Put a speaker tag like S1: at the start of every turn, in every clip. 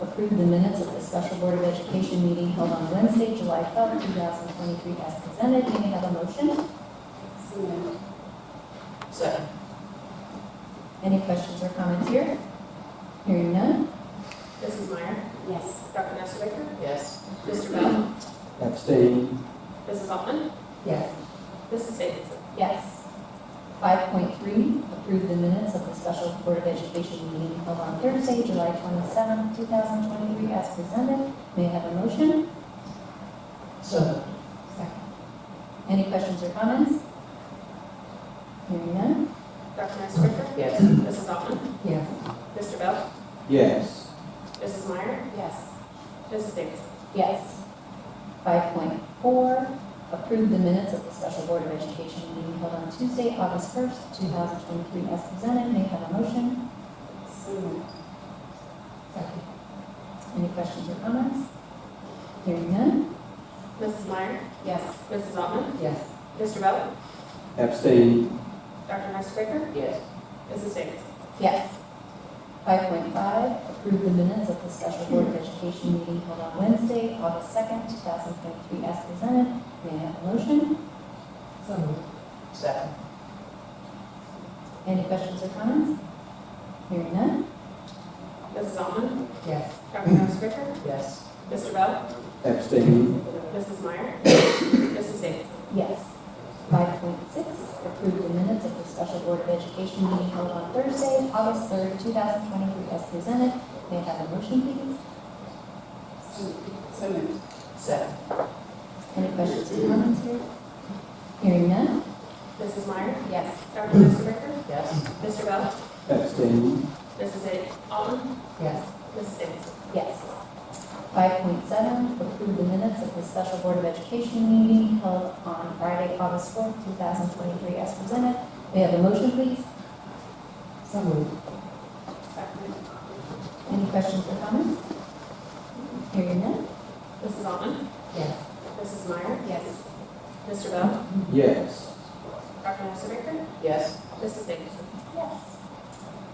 S1: approve the minutes of the Special Board of Education meeting held on Wednesday, July 12, 2023, as presented. May I have a motion?
S2: Second.
S1: Any questions or comments here? Hearing none?
S3: Mrs. Meyer?
S4: Yes.
S3: Dr. Nestor Baker?
S2: Yes.
S3: Mr. Bell?
S5: abstain,
S3: Mrs. Altman?
S1: Yes.
S3: Mrs. Davidson?
S1: Yes. 5.3, approve the minutes of the Special Board of Education meeting held on Thursday, July 27, 2023, as presented. May I have a motion?
S2: Second.
S1: Any questions or comments? Hearing none?
S3: Dr. Nestor Baker?
S2: Yes.
S3: Mrs. Altman?
S1: Yes.
S3: Mr. Bell?
S5: yes,
S3: Mrs. Meyer?
S1: Yes.
S3: Mrs. Davidson?
S1: Yes. 5.4, approve the minutes of the Special Board of Education meeting held on Tuesday, August 1st, 2023, as presented. May I have a motion?
S4: So moved.
S1: Any questions or comments? Hearing none?
S3: Mrs. Meyer?
S1: Yes.
S3: Mrs. Altman?
S1: Yes.
S3: Mr. Bell?
S5: abstain,
S3: Dr. Nestor Baker?
S2: Yes.
S3: Mrs. Davidson?
S1: Yes. 5.5, approve the minutes of the Special Board of Education meeting held on Wednesday, August 2nd, 2023, as presented. May I have a motion?
S2: Second.
S1: Any questions or comments? Hearing none?
S3: Mrs. Altman?
S1: Yes.
S3: Dr. Nestor Baker?
S2: Yes.
S3: Mr. Bell?
S5: abstain,
S3: Mrs. Meyer? Mrs. Davidson?
S1: Yes. 5.6, approve the minutes of the Special Board of Education meeting held on Thursday, August 3rd, 2023, as presented. May I have a motion, please?
S4: So moved. So moved.
S2: Second.
S1: Any questions or comments here? Hearing none?
S3: Mrs. Meyer?
S1: Yes.
S3: Dr. Nestor Baker?
S2: Yes.
S3: Mr. Bell?
S5: abstain,
S3: Mrs. A- Altman?
S1: Yes.
S3: Mrs. Davidson?
S1: Yes. Five point seven, approve the minutes of the special board of education meeting held on Friday, August fourth, two thousand twenty-three, as presented. May I have a motion, please? So
S3: Second.
S1: Any questions or comments? Hearing none?
S3: Mrs. Altman?
S1: Yes.
S3: Mrs. Meyer?
S1: Yes.
S3: Mr. Bell?
S5: yes,
S3: Dr. Nestor Baker?
S2: Yes.
S3: Mrs. Davidson?
S1: Yes.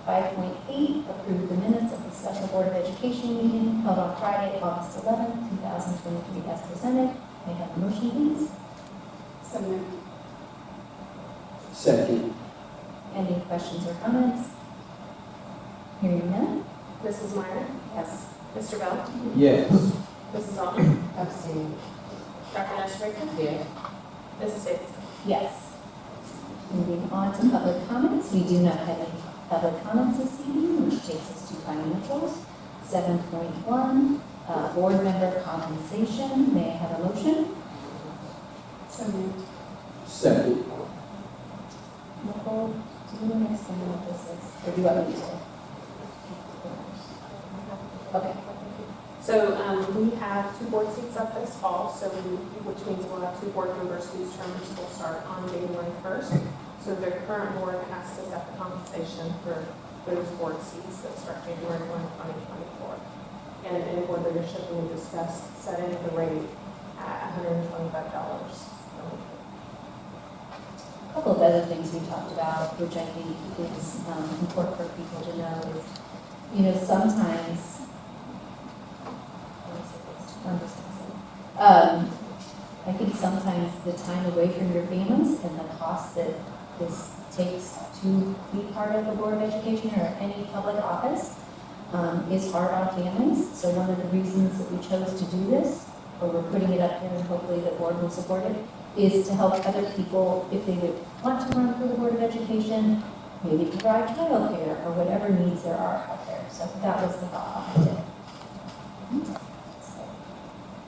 S1: Five point eight, approve the minutes of the special board of education meeting held on Friday, August eleventh, two thousand twenty-three, as presented. May I have a motion, please?
S4: So moved.
S5: second,
S1: Any questions or comments? Hearing none?
S3: Mrs. Meyer?
S1: Yes.
S3: Mr. Bell?
S5: yes,
S3: Mrs. Altman?
S4: Abstain.
S3: Dr. Nestor Baker?
S2: Yes.
S3: Mrs. Davidson?
S1: Yes. Moving on to public comments, we do not have any public comments this evening, which takes us to financials. Seven point one, uh, board member compensation, may I have a motion?
S4: So moved.
S5: second,
S1: Nicole, do you understand what this is, or do you want me to? Okay,
S3: So um, we have two board seats up this fall, so we, which means we'll have two board members whose terms will start on January 1st. So the current board has to set the compensation for those board seats that start January 1, 2024. And in board leadership, we discussed setting the rate at $125.
S1: a couple of other things we talked about, which I think is um, important for people to know is, you know, sometimes, um, I think sometimes the time away from your families and the cost that this takes to be part of a Board of Education or any public office um, is hard on families. So one of the reasons that we chose to do this, or we're putting it up here and hopefully the board will support it, is to help other people if they would want to run for the Board of Education, maybe provide childcare or whatever needs there are out there. So that was the thought behind it. So,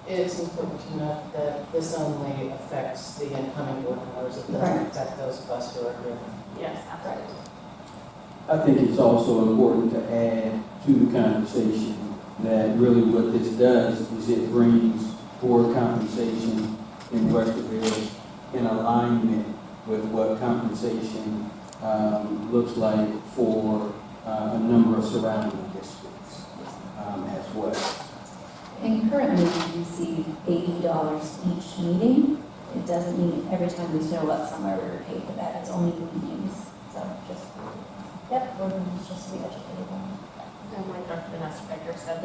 S2: It's important to note that this only affects the incoming board members. It doesn't
S1: Right.
S2: affect those of us who are here.
S3: Yes,
S1: Right.
S5: I think it's also important to add to the conversation that really what this does is it brings board compensation in Westerville in alignment with what compensation, um, looks like for, uh, a number of surrounding districts, um, as well.
S1: And currently, we receive eighty dollars each meeting. It doesn't mean every time we show up somewhere, we're paid for that. It's only meetings. So just, yep, we're just to be educated on.
S3: And like Dr. Vanessa Baker said,